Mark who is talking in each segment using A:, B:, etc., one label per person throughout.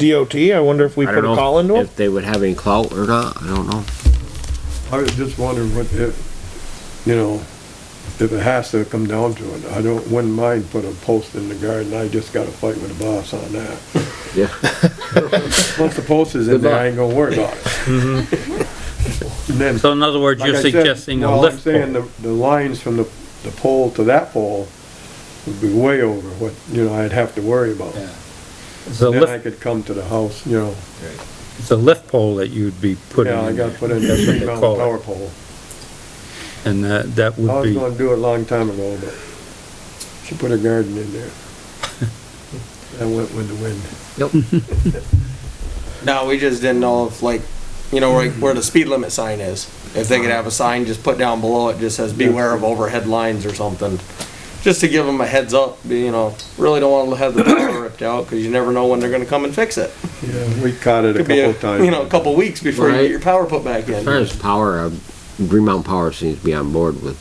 A: DOT, I wonder if we
B: I
A: put
B: don't
A: a
B: know
A: call into them?
B: If they would have any clout or not, I don't know.
C: I was just wondering what, if, you know, if it has to come down to it, I don't, wouldn't mind put a post in the garden, I just got a fight with the boss on that.
B: Yeah.
C: Once the post is in there, I ain't gonna worry about it. And then,
D: So in other words,
C: like
D: you're
C: I said,
D: suggesting a
C: well, I'm
D: lift
C: saying
D: pole.
C: the, the lines from the, the pole to that pole would be way over what, you know, I'd have to worry about.
D: It's a
C: Then I
D: lift,
C: could come to the house, you know,
D: it's a lift pole that you'd be putting
C: yeah, I
D: in
C: gotta
D: there.
C: put in a
D: That's what
C: three
D: they
C: mount
D: call it.
C: power pole.
D: And that, that
C: I
D: would
C: was
D: be,
C: gonna do it a long time ago, but she put a garden in there. That went with the wind.
E: No, we just didn't know if like, you know, like where the speed limit sign is. If they
C: Uh-huh.
E: could have a sign just put down below it, just says beware of overhead lines or something. Just to give them a heads up, you know, really don't want to have the power ripped out because you never know when they're gonna come and fix it.
C: Yeah, we caught it a
E: Could be,
C: couple
E: a-
C: of times.
E: you know, a couple weeks before you
B: Right.
E: get your power put back
B: As far
E: in.
B: as power, uh, Green Mountain Power seems to be on board with,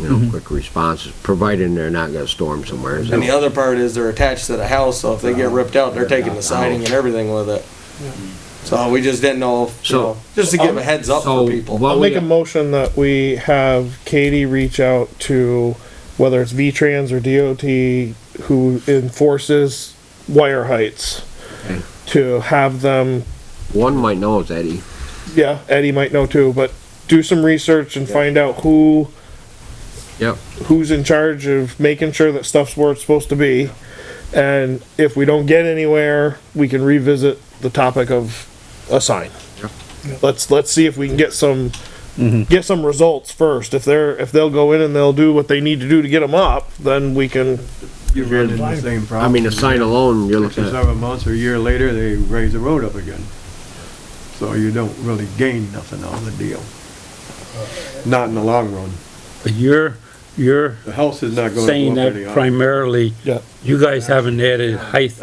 B: you know, quick responses, providing they're not gonna storm somewhere. so-
E: Mm-hmm. And the other part is they're attached to the house, so if they
C: Uh-huh.
E: get ripped out, they're taking the siding and everything with it. So we just didn't know, if, you
B: So- um,
E: know, just to give a heads up
B: So
E: for people.
B: what
A: I'll
B: we-
A: make a motion that we have Katie reach out to whether it's V-Trans or DOT who enforces wire heights
B: Okay.
A: to have them,
B: One might know is Eddie.
A: yeah, Eddie might know too, but do some research and find out who,
B: Yep.
A: who's in charge of making sure that stuff's where it's supposed to be. And if we don't get anywhere, we can revisit the topic of a sign. Let's, let's see if we can get some, get some results first. If they're, if they'll go in and they'll do what they need to do to get them up, then we can,
C: You run into the same
B: I
C: problem.
B: mean, a sign alone, you're
C: Six or
B: looking at,
C: seven months or a year later, they raise the road up again. So you don't really gain nothing out of the deal. Uh, Not in the long run.
D: but you're, you're
C: The house is not gonna
D: saying
C: go up
D: that
C: any higher.
D: primarily,
A: yeah,
D: you guys haven't added height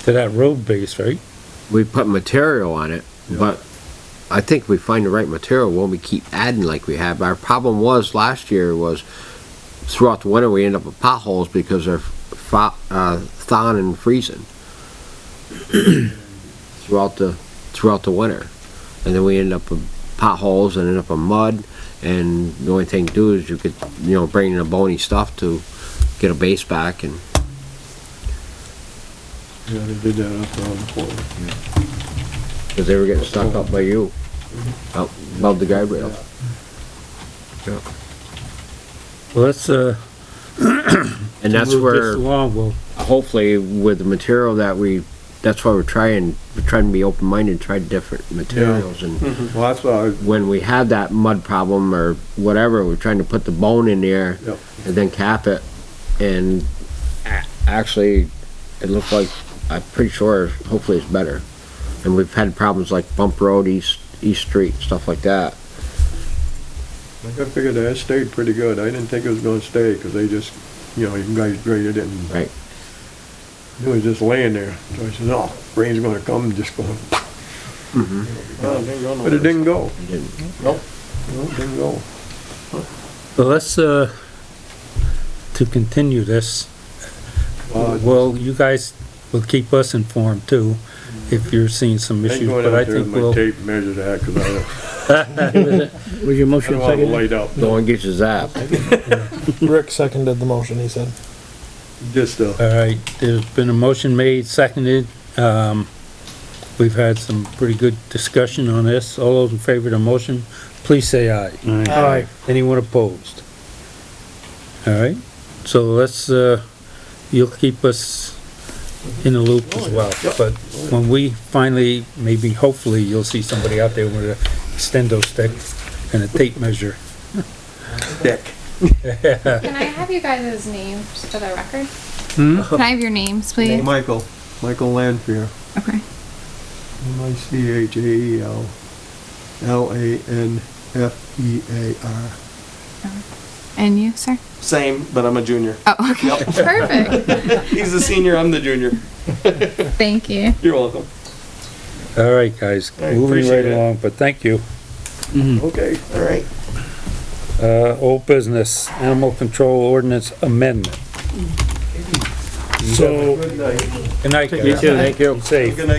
D: to that road base, right?
B: we put material on it, but I think we find the right material when we keep adding like we have. Our problem was last year was throughout the winter, we end up with potholes because they're fa- uh, thawing and freezing. Throughout the, throughout the winter. And then we end up with potholes and end up with mud. And the only thing to do is you could, you know, bring in the bony stuff to get a base back and
C: Yeah, they did that up around the corner.
B: Because they were getting stuck up by you, up above the guide rail.
D: Well, let's, uh,
B: And that's
D: move this
B: where,
D: along. We'll
B: hopefully, with the material that we, that's why we're trying, we're trying to be open-minded, try different materials. And
C: Well, that's why,
B: when we had that mud problem or whatever, we're trying to put the bone in there
C: Yep.
B: and then cap it. And a- actually, it looked like, I'm pretty sure, hopefully it's better. And we've had problems like Bump Road, East, East Street, stuff like that.
C: I, I figured that stayed pretty good. I didn't think it was gonna stay, cause they just, you know, you guys graded it and
B: Right.
C: It was just laying there. So I said, no, rain's gonna come, and just going, but it didn't go.
B: It didn't.
E: Nope.
C: No, it didn't go.
D: Well, let's, uh, to continue this,
C: Uh,
D: well, you guys will keep us informed too, if you're seeing some
C: I ain't
D: issues,
C: going
D: but I
C: out there with
D: think
C: my
D: we'll.
C: tape and measure that, cause I don't,
F: Was your
C: I don't
F: motion
C: wanna
F: seconded?
C: light up.
B: No one gets you zapped.
A: Rick seconded the motion, he said.
C: Just, uh,
D: All right, there's been a motion made, seconded, um, we've had some pretty good discussion on this, all those in favor of the motion, please say aye.
F: Aye.
A: Alright,
D: Anyone opposed? All right, so let's, uh, you'll keep us in the loop as well,
E: Oh,
D: but when we finally, maybe hopefully, you'll see somebody out there with a stendo stick and a tape measure.
C: Dick.
G: Can I have you guys' names for the record? Can I have your names, please?
C: Michael, Michael Lanfear,
G: Okay.
C: M I C H A E L, L A N F E A R.
G: And you, sir?
E: Same, but I'm a junior.
G: Oh, okay. Perfect.
E: He's the senior, I'm the junior.
G: Thank you.
E: You're welcome.
D: All right, guys,
E: All right,
D: moving
E: appreciate
D: right
E: it.
D: along, but thank you. Hmm.
C: Okay.
E: All right.
D: Uh, old business, animal control ordinance amendment.
A: so.
D: Good night, guys.
B: too, thank you.
D: Safe.
E: Good night,